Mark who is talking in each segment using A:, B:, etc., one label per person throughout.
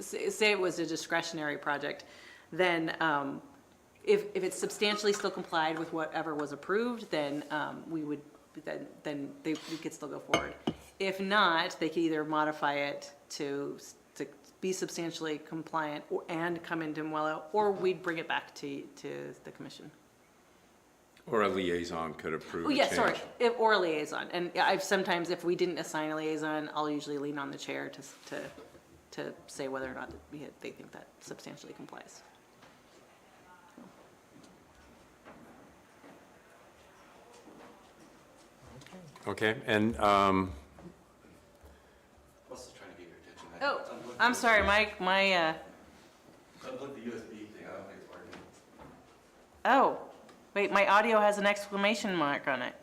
A: say say it was a discretionary project, then um, if, if it's substantially still complied with whatever was approved, then um, we would, then, then they, we could still go forward. If not, they could either modify it to, s- to be substantially compliant or- and come into Muello, or we'd bring it back to, to the commission.
B: Or a liaison could approve
A: Oh,
B: a
A: yeah, sorry,
B: change.
A: if, or a liaison, and yeah, I've, sometimes if we didn't assign a liaison, I'll usually lean on the chair to, s- to, to say whether or not that we had, they think that substantially complies.
B: Okay, and, um,
C: Plus, it's trying to get your attention. I-
A: Oh,
C: unplug
A: I'm
C: the-
A: sorry, my, my, uh,
C: Unplug the USB thing, I don't think it's working.
A: oh, wait, my audio has an exclamation mark on it.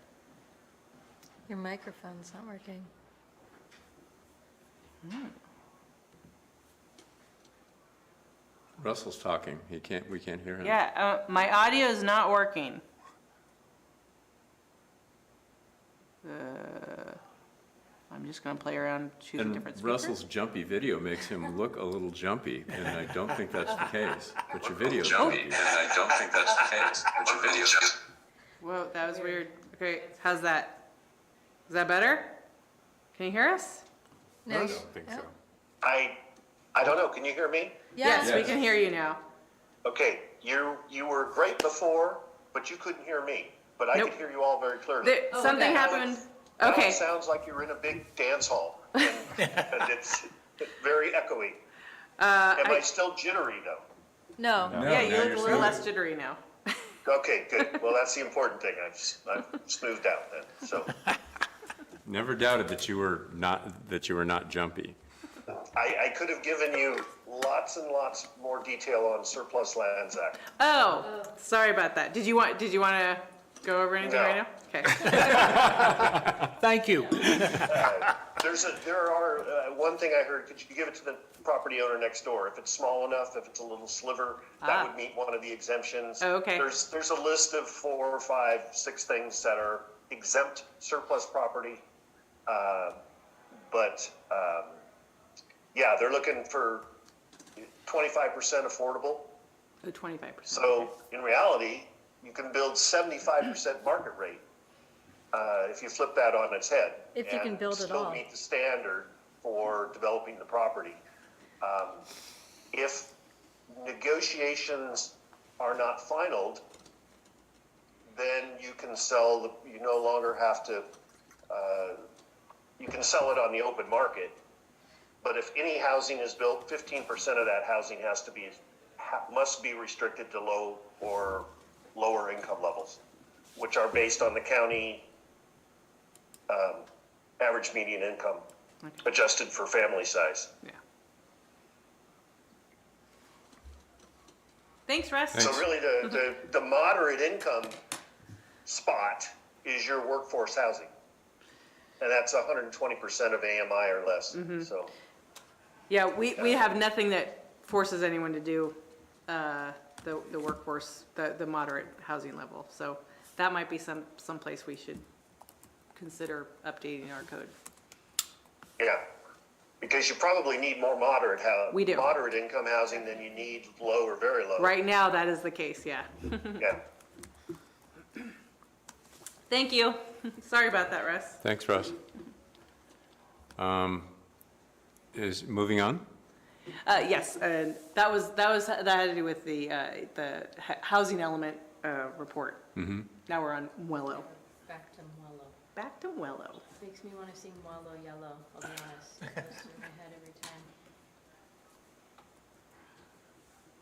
D: Your microphone's not working.
B: Russell's talking, he can't, we can't hear him.
A: Yeah, uh, my audio is not working. Uh, I'm just gonna play around, choose a
B: And
A: different speaker.
B: Russell's jumpy video makes him look a little jumpy, and I don't think that's the case, but your video's
E: Jumpy,
B: jumpy.
E: and I don't think that's the case, but your video's just.
A: Whoa, that was weird. Okay, how's that? Is that better? Can you hear us?
D: No,
B: I
D: you-
B: don't think
D: no?
B: so.
F: I, I don't know. Can you hear me?
D: Yeah,
A: we can hear you now.
F: Okay, you you were great before, but you couldn't hear me. But I
A: Nope.
F: could hear you all very clearly.
A: There,
D: Oh,
A: something
D: okay.
A: happened.
F: Now it
A: Okay,
F: sounds like you're in a big dance hall, and, and it's very echoey.
A: uh,
F: Am I,
A: I-
F: still jittery though?
D: no.
A: yeah, you
B: now
A: look
B: you're
A: a little
B: smooth.
A: less jittery now.
F: Okay, good. Well, that's the important thing. I've s- I've smoothed out then. So
B: Never doubted that you were not, that you were not jumpy.
F: I, I could have given you lots and lots more detail on surplus lands act.
A: Oh, sorry about that. Did you want, did you want to go over anything
F: No.
A: right now? Okay.
G: Thank you.
F: There's a, there are, uh, one thing I heard, could you give it to the property owner next door? If it's small enough, if it's a little sliver,
A: Ah.
F: that would meet one of the exemptions.
A: Oh, okay.
F: There's, there's a list of four, five, six things that are exempt surplus property. Uh, But, um, yeah, they're looking for twenty-five percent affordable.
A: Oh, 25%.
F: So in reality, you can build seventy-five percent market rate, uh, if you flip that on its head.
D: If you can
F: and
D: build it all.
F: Still meet the standard for developing the property. Um, If negotiations are not finalized, then you can sell, the- you no longer have to, uh, you can sell it on the open market. But if any housing is built, fifteen percent of that housing has to be, ha- must be restricted to low or lower income levels, which are based on the county um, average median income, adjusted for family size.
A: Yeah. Thanks, Russ.
F: So really, the, the,
A: Mm-hmm.
F: the moderate income spot is your workforce housing. And that's hundred and twenty percent of AMI or less,
A: Mm-hmm.
F: so.
A: Yeah, we, we have nothing that forces anyone to do uh, the, the workforce, the, the moderate housing level. So that might be some, someplace we should consider updating our code.
F: Yeah, because you probably need more moderate housing.
A: We do.
F: Moderate income housing than you need low or very low.
A: Right now, that is the case, yeah.
F: Yeah.
A: Thank you. Sorry about that, Russ.
B: Thanks, Russ. Um, Is, moving on?
A: Uh, yes, and that was, that was, that had to do with the, uh, the h- housing element uh, report.
B: Mm-hmm.
A: Now we're on Wello.
H: Back to Muello.
A: Back to Wello.
H: Makes me want to sing Muello Yellow, I'll be honest. It goes through my head every time.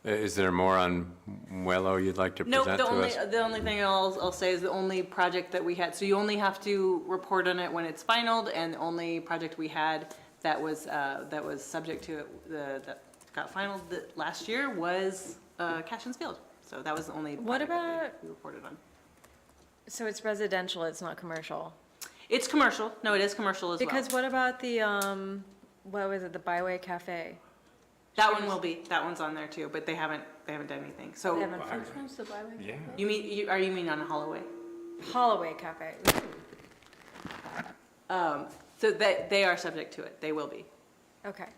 B: I- Is there more on Muello you'd like to
A: Nope,
B: present to
A: the only,
B: us?
A: the only thing I'll, I'll say is the only project that we had, so you only have to report on it when it's finalized, and the only project we had that was, uh, that was subject to, it, the, that got final th- last year was, uh, Cashin's Field. So that was the only
D: What
A: project that
D: about-
A: we- we reported on.
D: So it's residential, it's not commercial.
A: It's commercial, no, it is commercial as well.
D: Because what about the, um, what was it, the Byway Cafe?
A: That one will be, that one's on there too, but they haven't, they haven't done anything,
D: They
A: so,
D: haven't-
H: Which one's the Byway Cafe?
A: you mean, you, are you mean on Holloway?
D: Holloway Cafe.
A: So that, they are subject to it, they will be.
D: Okay.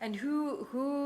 D: And who, who